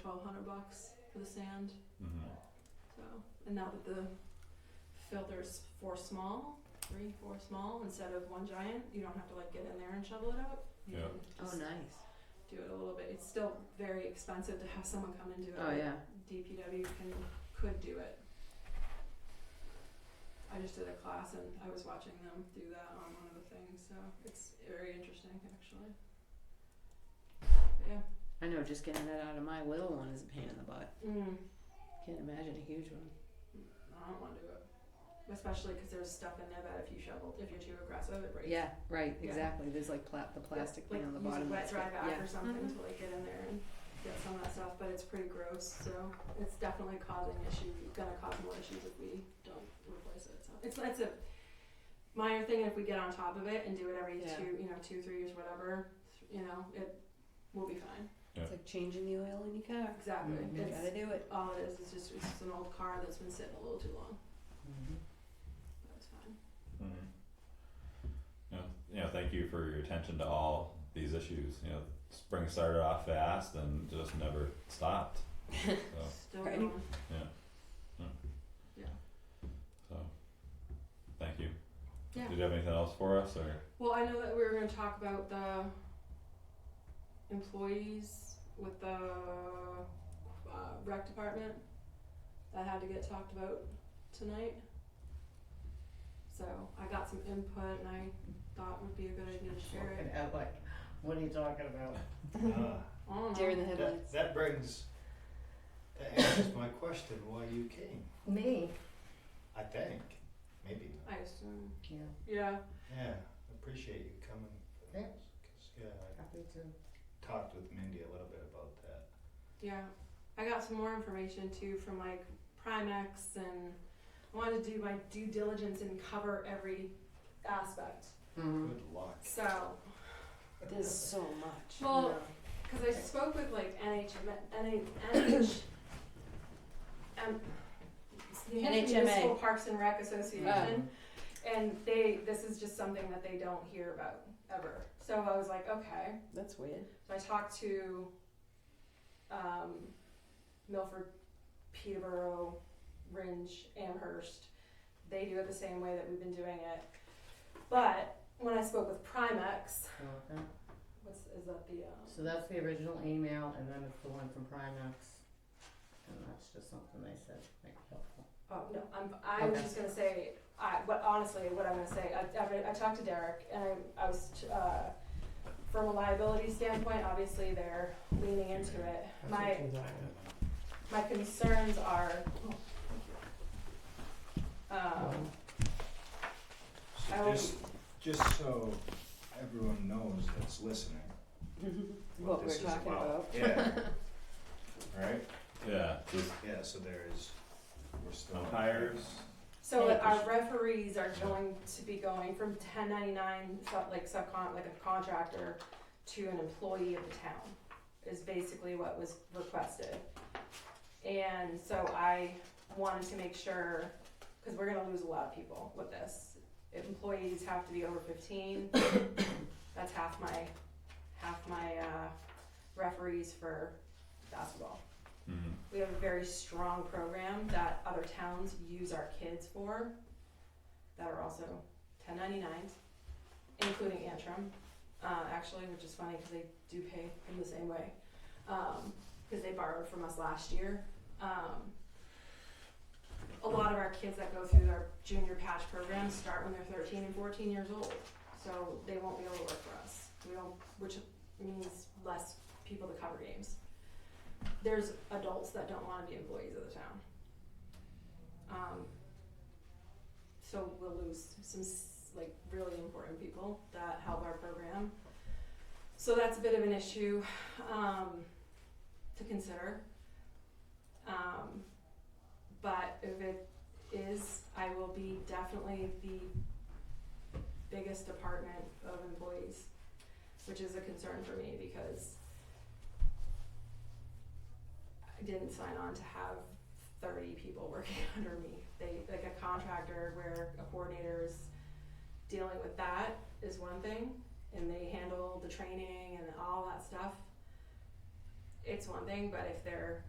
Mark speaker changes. Speaker 1: twelve hundred bucks for the sand.
Speaker 2: Mm-hmm.
Speaker 1: So, and now that the filter's four small, three, four small instead of one giant, you don't have to like get in there and shovel it out. You
Speaker 2: Yeah.
Speaker 1: can
Speaker 3: Oh,
Speaker 1: just
Speaker 3: nice.
Speaker 1: do it a little bit. It's still very expensive to have someone come and do it.
Speaker 3: Oh, yeah.
Speaker 1: DPW can could do it. I just did a class and I was watching them do that on one of the things, so it's very interesting actually. But yeah.
Speaker 3: I know. Just getting that out of my little one is a pain in the butt.
Speaker 1: Mm.
Speaker 3: Can't imagine a huge one.
Speaker 1: I don't want to do it. Especially because there's stuff in there that if you shovel, if you're too aggressive, it breaks.
Speaker 3: Yeah. Right.
Speaker 1: Yeah.
Speaker 3: Exactly. There's like pla- the plastic
Speaker 1: like,
Speaker 3: thing on the
Speaker 1: use
Speaker 3: bottom.
Speaker 1: a wet
Speaker 3: that's
Speaker 1: dry
Speaker 3: got-
Speaker 1: back
Speaker 3: yeah.
Speaker 1: or something
Speaker 3: Mhm.
Speaker 1: to like get in there and get some of that stuff, but it's pretty gross. So it's definitely causing issue, gonna cause more issues if we don't replace it. So it's it's a minor thing. If we get on top of it and do it every
Speaker 3: Yeah.
Speaker 1: two, you know, two three years, whatever, you know, it will be fine.
Speaker 3: It's like changing the oil in your car.
Speaker 1: Exactly.
Speaker 2: Mhm.
Speaker 3: You
Speaker 1: It's
Speaker 3: gotta do Mm-hmm. it.
Speaker 1: all it is. It's just it's just an old car that's been sitting a little too long. That's fine.
Speaker 2: Mhm. Mm-hmm. Yeah, you know, thank you for your attention to all these issues. You know, spring started off fast and just never stopped. So,
Speaker 1: Still
Speaker 3: Right.
Speaker 1: going.
Speaker 2: so thank you.
Speaker 1: Yeah.
Speaker 2: Did you have anything else for us, or
Speaker 1: Well, I know that we were gonna talk about the employees with the uh, rec department. That had to get talked about tonight. So I got some input and I thought would be a good idea to share it.
Speaker 4: And I'm like, what are you talking about? Uh,
Speaker 1: I don't know.
Speaker 3: Deer in the
Speaker 5: That,
Speaker 3: headlights.
Speaker 5: that brings, that answers my question, why you came,
Speaker 4: Me?
Speaker 5: I think, maybe not.
Speaker 1: I assume.
Speaker 4: Yeah,
Speaker 1: Yeah.
Speaker 5: Yeah, appreciate you coming for
Speaker 4: Yeah.
Speaker 5: this, 'cause, yeah,
Speaker 4: happy to.
Speaker 5: I talked with Mindy a little bit about that.
Speaker 1: Yeah, I got some more information too from like Primex, and I wanted to do my due diligence and cover every aspect.
Speaker 3: Mm-hmm.
Speaker 5: Good luck.
Speaker 1: So,
Speaker 3: There's so much.
Speaker 1: Well,
Speaker 4: uh,
Speaker 1: because I spoke with like NH, NH, NH, um, New Hampshire
Speaker 3: NHMA.
Speaker 1: Municipal Parks and Rec Association, and they this is just something that they don't hear about ever. So I was like, okay.
Speaker 3: that's weird.
Speaker 1: So I talked to um, Milford, Peterborough, Ringe, Amherst. They do it the same way that we've been doing it. But when I spoke with Primex,
Speaker 4: Okay.
Speaker 1: what's, is that the, um,
Speaker 4: So that's the original email, and then it's the one from Primex, and that's just something they said, like, helpful.
Speaker 1: oh, no, I'm, I was
Speaker 4: Okay.
Speaker 1: just gonna say, I, but honestly, what I'm gonna say, I, I, re- I talked to Derek and I, I was, uh, from a liability standpoint, obviously they're leaning into it. My, my concerns are, um, I
Speaker 5: So
Speaker 1: will-
Speaker 5: just, just so everyone knows that's listening,
Speaker 3: what
Speaker 5: what
Speaker 3: we're
Speaker 5: uh, this is about.
Speaker 3: talking about.
Speaker 5: Yeah. Right,
Speaker 2: yeah, just
Speaker 5: yeah, so there is, we're still.
Speaker 2: umpires.
Speaker 1: So
Speaker 3: Yeah.
Speaker 1: our referees are going to be going from ten ninety nine, like subcon, like a contractor, to an employee of the town, is basically what was requested. And so I wanted to make sure, cause we're gonna lose a lot of people with this. Employees have to be over fifteen, that's half my, half my, uh, referees for basketball.
Speaker 2: Mm-hmm.
Speaker 1: We have a very strong program that other towns use our kids for that are also 1099s, including Antrim, uh, actually, which is funny because they do pay in the same way because they borrowed from us last year. Um, a lot of our kids that go through our junior patch program start when they're 13 and 14 years old, so they won't be able to work for us. We don't, which means less people to cover games there's adults that don't want to be employees of the town. Um, so we'll lose some s- like really important people that help our program. So that's a bit of an issue um, to consider. Um, but if it is, I will be definitely the biggest department of employees, which is a concern for me because I didn't sign on to have thirty people working under me. They, like a contractor where a coordinator's dealing with that is one thing, and they handle the training and all that stuff. it's one thing, but if they're